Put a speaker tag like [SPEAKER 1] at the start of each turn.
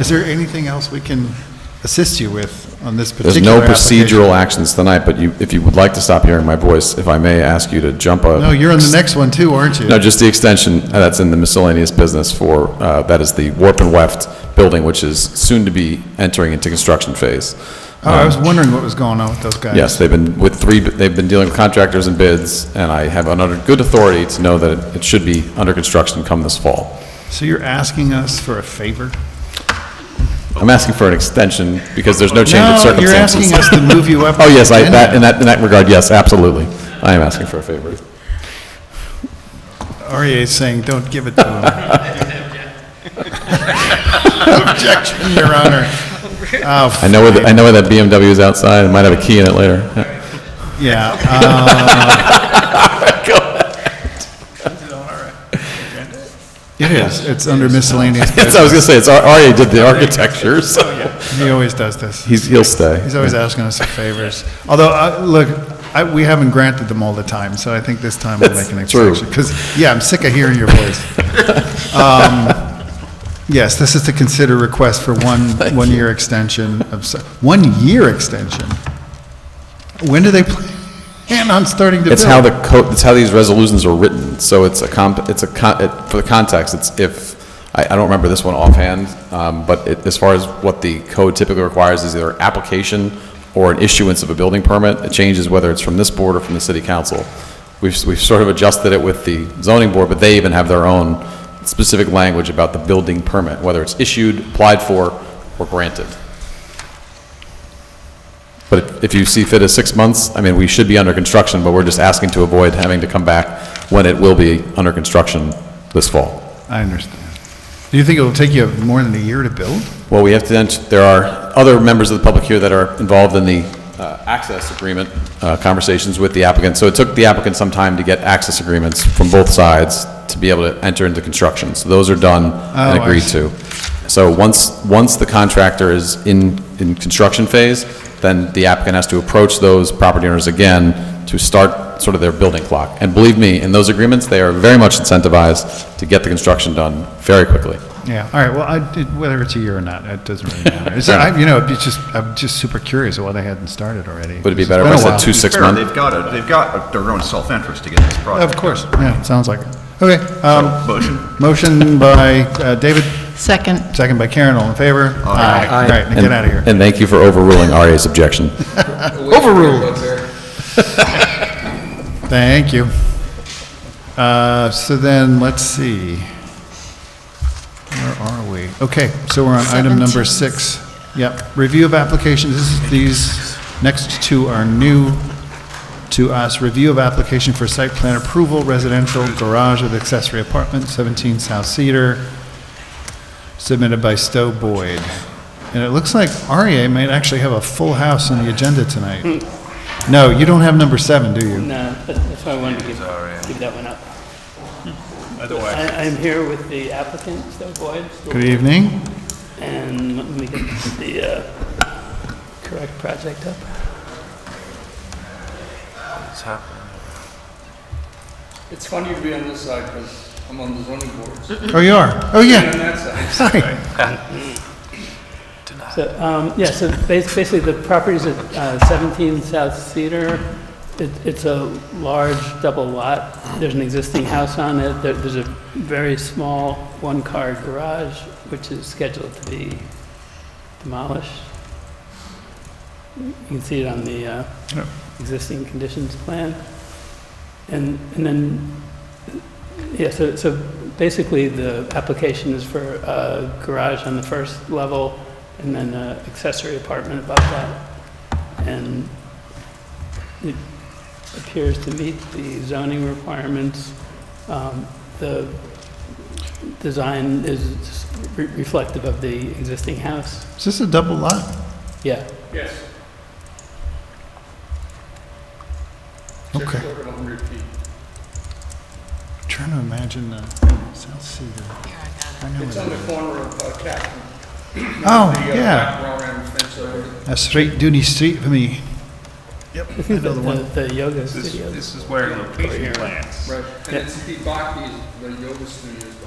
[SPEAKER 1] Is there anything else we can assist you with on this
[SPEAKER 2] There's
[SPEAKER 1] particular
[SPEAKER 2] no
[SPEAKER 1] application?
[SPEAKER 2] procedural actions tonight, but you, if you would like to stop hearing my voice, if I may ask you to jump a...
[SPEAKER 1] No, you're on the next one too, aren't you?
[SPEAKER 2] No, just the extension uh, that's in the miscellaneous business for, uh, that is the Warp and Weft building, which is soon to be entering into construction phase.
[SPEAKER 1] Oh, I was wondering what was going on with those guys.
[SPEAKER 2] Yes, they've been with three, they've been dealing with contractors and bids, and I have under good authority to know that it- it should be under construction come this fall.
[SPEAKER 1] So you're asking us for a favor?
[SPEAKER 2] I'm asking for an extension because there's no change of
[SPEAKER 1] No, you're
[SPEAKER 2] circumstances.
[SPEAKER 1] asking us to move you up.
[SPEAKER 2] Oh, yes, I,
[SPEAKER 1] the
[SPEAKER 2] that, in
[SPEAKER 1] agenda.
[SPEAKER 2] that, in that regard, yes, absolutely. I am asking for a favor.
[SPEAKER 1] REA is saying, don't give it to him. Objection, Your Honor. Oh,
[SPEAKER 2] I know where, the- I know where that BMW is outside, it might have a key in it later.
[SPEAKER 1] Yeah. uh, It is. It's under miscellaneous.
[SPEAKER 2] Yes, I was gonna say, it's, R- RA did the architecture, so
[SPEAKER 1] He always does this.
[SPEAKER 2] he's, he'll stay.
[SPEAKER 1] Oh, He's always asking us for favors. Although, uh, look, I, we haven't granted them all the time, so I think this time we'll make an
[SPEAKER 2] That's true.
[SPEAKER 1] exception. Because, yeah, I'm sick of hearing your voice. Um, Yes, this is to consider request for one, one-year extension of, s- one-year extension? When do they plan on starting to build?
[SPEAKER 2] It's how the code, it's how these resolutions are written, so it's a comp, it's a con, it- for the context, it's if, I, I don't remember this one offhand, um, but it, as far as what the code typically requires is either application or an issuance of a building permit, it changes whether it's from this board or from the city council. We've, we've sort of adjusted it with the zoning board, but they even have their own specific language about the building permit, whether it's issued, applied for, or granted. But if you see fit as six months, I mean, we should be under construction, but we're just asking to avoid having to come back when it will be under construction this fall.
[SPEAKER 1] I understand. Do you think it'll take you more than a year to build?
[SPEAKER 2] Well, we have to, then- there are other members of the public here that are involved in the uh, access agreement uh, conversations with the applicant. So it took the applicant some time to get access agreements from both sides to be able to enter into construction. So those are done and
[SPEAKER 1] Oh, I
[SPEAKER 2] agreed
[SPEAKER 1] see.
[SPEAKER 2] to. So once, once the contractor is in, in construction phase, then the applicant has to approach those property owners again to start sort of their building clock. And believe me, in those agreements, they are very much incentivized to get the construction done very quickly.
[SPEAKER 1] Yeah, all right, well, I did, whether it's a year or not, it doesn't really matter. It's,
[SPEAKER 2] Fair enough.
[SPEAKER 1] I, you know, it's just, I'm just super curious why they hadn't started already.
[SPEAKER 2] Would it be
[SPEAKER 1] It's
[SPEAKER 2] better if
[SPEAKER 1] been
[SPEAKER 2] I
[SPEAKER 1] a
[SPEAKER 2] said
[SPEAKER 1] while.
[SPEAKER 2] two, six
[SPEAKER 3] Fair,
[SPEAKER 2] months?
[SPEAKER 3] they've got it, they've got their own self-interest to get this
[SPEAKER 1] Of
[SPEAKER 3] project.
[SPEAKER 1] course, yeah, sounds like it. Okay, um,
[SPEAKER 3] Motion?
[SPEAKER 1] motion by, uh, David,
[SPEAKER 4] Second.
[SPEAKER 1] second by Karen, all in favor? Aye. All right, now
[SPEAKER 2] And-
[SPEAKER 1] get out of here.
[SPEAKER 2] And thank you for overruling RA's objection.
[SPEAKER 1] Thank you. Uh, so then, let's see. Where are we? Okay, so we're on item number
[SPEAKER 4] Seventeen.
[SPEAKER 1] six. Yep, review of applications, this is, these next two are new to us. Review of application for site plan approval, residential garage with accessory apartment, 17 South Cedar, submitted by Stowe Boyd. And it looks like REA might actually have a full house on the agenda tonight. No, you don't have number seven, do you?
[SPEAKER 5] No, that- that's why I wanted to give, give that one up. I, I'm here with the applicant, Stowe Boyd,
[SPEAKER 1] Good evening.
[SPEAKER 5] and let me get the, uh, correct project up.
[SPEAKER 6] It's funny to be on this side because I'm on the zoning board.
[SPEAKER 1] Oh, you are? Oh,
[SPEAKER 6] On
[SPEAKER 1] yeah.
[SPEAKER 6] that side.
[SPEAKER 1] Hi.
[SPEAKER 5] So, um, yeah, so bas- basically, the property's at uh, 17 South Cedar. It- It's a large double lot. There's an existing house on it. There- There's a very small one-car garage, which is scheduled to be demolished. You can see it on the uh,
[SPEAKER 1] Yep.
[SPEAKER 5] existing conditions plan. And and then yeah, so, so basically the application is for a garage on the first level and then an accessory apartment above that. And it appears to meet the zoning requirements. Um, The design is re- reflective of the existing house.
[SPEAKER 1] Is this a double lot?
[SPEAKER 5] Yeah,
[SPEAKER 6] Yes.
[SPEAKER 1] Okay.
[SPEAKER 6] Just over 100 feet.
[SPEAKER 1] I'm Trying to imagine, uh, South Cedar. I know
[SPEAKER 6] It's
[SPEAKER 1] it
[SPEAKER 6] on the
[SPEAKER 1] is.
[SPEAKER 6] corner of uh, Chapman.
[SPEAKER 1] Oh,
[SPEAKER 6] The, uh,
[SPEAKER 1] yeah.
[SPEAKER 6] back wall around the fence there.
[SPEAKER 1] A straight duty street for me.
[SPEAKER 5] I think the, the yoga studio.
[SPEAKER 3] This is where location plans.
[SPEAKER 6] Right. And it's the Baki's, the yoga studio's behind